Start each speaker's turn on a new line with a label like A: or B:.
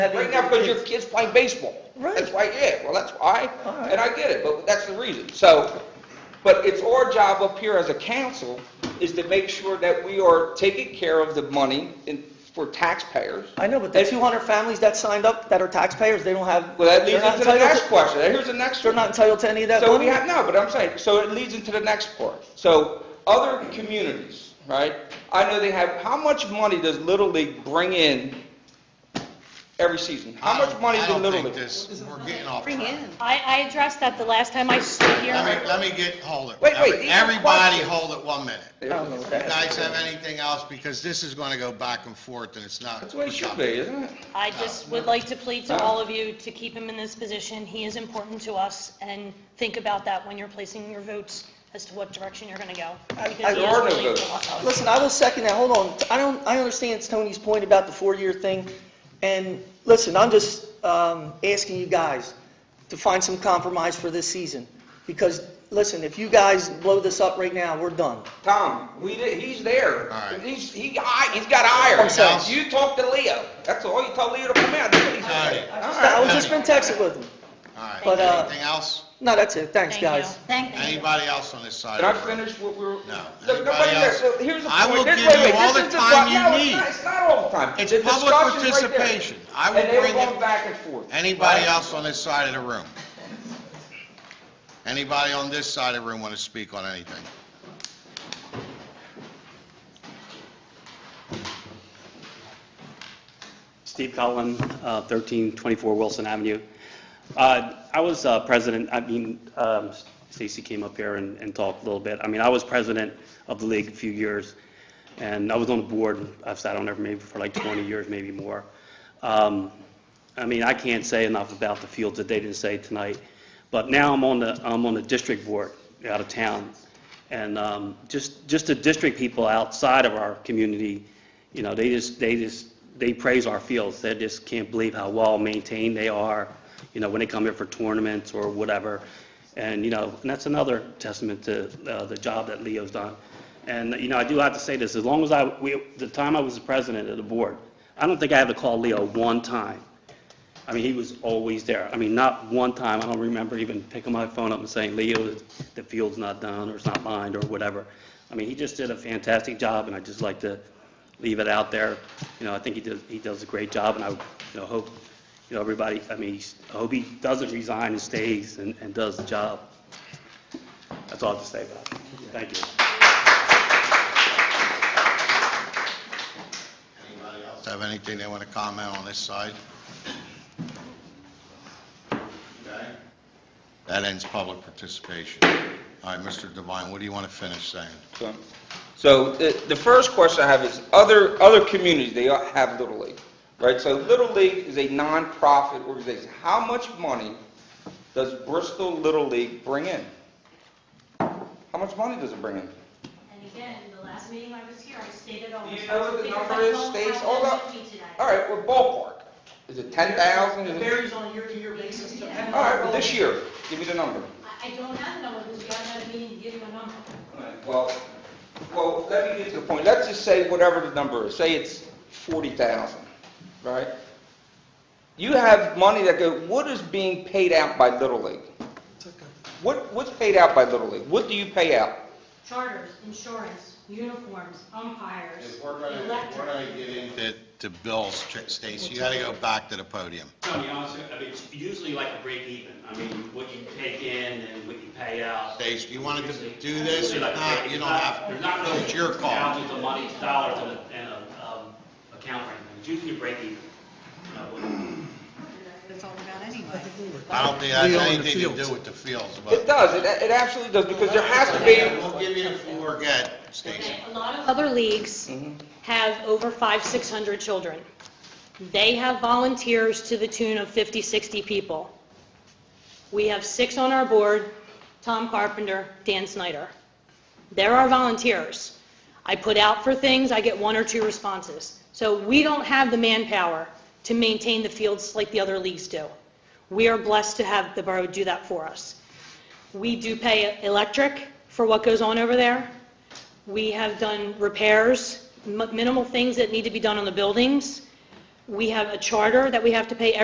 A: Have
B: Right
A: you-
B: now, because your kid's playing baseball.
A: Right.
B: That's why, yeah, well, that's why,
A: All right.
B: and I get it, but that's the reason. So, but it's our job up here as a council is to make sure that we are taking care of the money in, for taxpayers.
A: I know, but the 200 families that signed up that are taxpayers, they don't have,
B: Well, that
A: they're
B: leads
A: not
B: into the next
A: entitled, to-
B: question. Here's the next
A: they're
B: one.
A: not entitled to any of that
B: So we
A: money?
B: have, no, but I'm saying, so it leads into the next part. So other communities, right? I know they have, how much money does Little League bring in every season? How much money
C: I
B: does
C: don't
B: Little
C: think
B: League?
C: this, we're getting off
D: Bring
C: track.
D: in.
E: I, I addressed that the last time I stood here.
C: Let me, let me get, hold it.
B: Wait, wait, these are
C: Everybody
B: questions.
C: hold it one minute.
A: I don't know what that
C: You guys have anything else, because this is gonna go back and forth, and it's not.
B: That's the way it should be, isn't it?
E: I just would like to plead to all of you to keep him in this position. He is important to us, and think about that when you're placing your votes as to what direction you're going to go. because he is
B: There are no
E: really
B: votes.
E: important to us.
A: Listen, I will second that, hold on, I don't, I understand Tony's point about the four-year thing, and, listen, I'm just, um, asking you guys to find some compromise for this season, because, listen, if you guys blow this up right now, we're done.
B: Tom, we, did- he's there.
C: All right.
B: He's, he, I- he's got iron.
A: I'm sorry.
B: You talk to Leo. That's all. You tell Leo to come out. That's what he said.
C: All right.
B: All
A: I
B: right.
A: was just been texting with him,
C: All right,
A: But, uh,
C: anything else?
A: no, that's it, thanks,
E: Thank you.
A: guys.
D: Thank you.
C: Anybody else on this side?
B: Did I
C: of the room?
B: finish what we were?
C: No.
B: Look,
C: Anybody
B: nobody there,
C: else?
B: so here's the point.
C: I will
B: This-
C: give
B: wait,
C: you
B: wait,
C: all
B: this
C: the
B: is the
C: time
B: pro-
C: you
B: no, it's
C: need.
B: not- It's not all the time.
C: It's
B: The
C: public
B: discussion's right there.
C: participation. I will
B: And they were
C: bring it-
B: going back and forth.
C: Anybody
B: right?
C: else on this side of the room? Anybody on this side of the room want to speak on anything?
F: Steve Collin, uh, 1324 Wilson Avenue. Uh, I was uh, president, I mean, um, Stacy came up here and and talked a little bit. I mean, I was president of the league a few years, and I was on the board, I've sat on there maybe for like 20 years, maybe more. Um, I mean, I can't say enough about the fields that they didn't say tonight, but now I'm on the, I'm on the district board out of town, and um, just, just the district people outside of our community, you know, they just, they just, they praise our fields. They just can't believe how well-maintained they are, you know, when they come here for tournaments or whatever. And, you know, and that's another testament to uh, the job that Leo's done. And, you know, I do have to say this, as long as I, we- the time I was the president of the board, I don't think I had to call Leo one time. I mean, he was always there. I mean, not one time, I don't remember even picking my phone up and saying, Leo, the field's not done, or it's not lined, or whatever. I mean, he just did a fantastic job, and I'd just like to leave it out there. You know, I think he does, he does a great job, and I, you know, hope, you know, everybody, I mean, I hope he doesn't resign and stays and, and does the job. That's all I have to say about it. Thank you.
C: Anybody else Have anything they want to comment on this side? Okay. That ends public participation. All right, Mr. Devine, what do you want to finish saying?
B: So- So the, the first question I have is, other, other communities, they have Little League, right? So Little League is a nonprofit organization. How much money does Bristol Little League bring in? How much money does it bring in?
G: And again, the last meeting I was here, I stated all
B: Do
G: this.
B: you know what the
G: because
B: number
G: I
B: is,
G: don't
B: states,
G: have
B: all
G: them
B: that?
G: with me today.
B: All right, well, ballpark. Is it 10,000? Is
A: It
B: it-
A: varies on a year-to-year basis, depending on...
B: All right, well, this year, give me the number.
G: I, I don't have a number, because we haven't had a meeting to give you a number.
B: Well, well, let me get to the point. Let's just say whatever the number is, say it's 40,000, right? You have money that go, what is being paid out by Little League? What, what's paid out by Little League? What do you pay out?
G: Charters, insurance, uniforms, umpires,
C: We're gonna, we're
G: electric.
C: gonna get into to bills, Ch- Stacy, you gotta go back to the podium.
H: No, to be honest, with you, I mean, it's usually like a break even. I mean, what you take in and what you pay out.
C: Stacy, you wanted to do
H: Usually-
C: this or
H: usually like a
C: not,
H: break-
C: you
H: it's
C: don't
H: not-
C: have,
H: There's not really.
C: it's your call.
H: Thousands of money, dollars in a, in a, um, account or anything. It's usually a break even. You know, what-
D: That's all about anyway.
C: I don't think that's anything to do with the fields, but.
B: It does, it, it absolutely does, because there has to be,
C: We'll give you the floor again, Stacy.
G: Okay, A lot of
E: Other leagues have over five, 600 children. They have volunteers to the tune of 50, 60 people. We have six on our board, Tom Carpenter, Dan Snyder. There are volunteers. I put out for things, I get one or two responses. So we don't have the manpower to maintain the fields like the other leagues do. We are blessed to have the borough do that for us. We do pay electric for what goes on over there. We have done repairs, mi- minimal things that need to be done on the buildings. we have a charter that we have to pay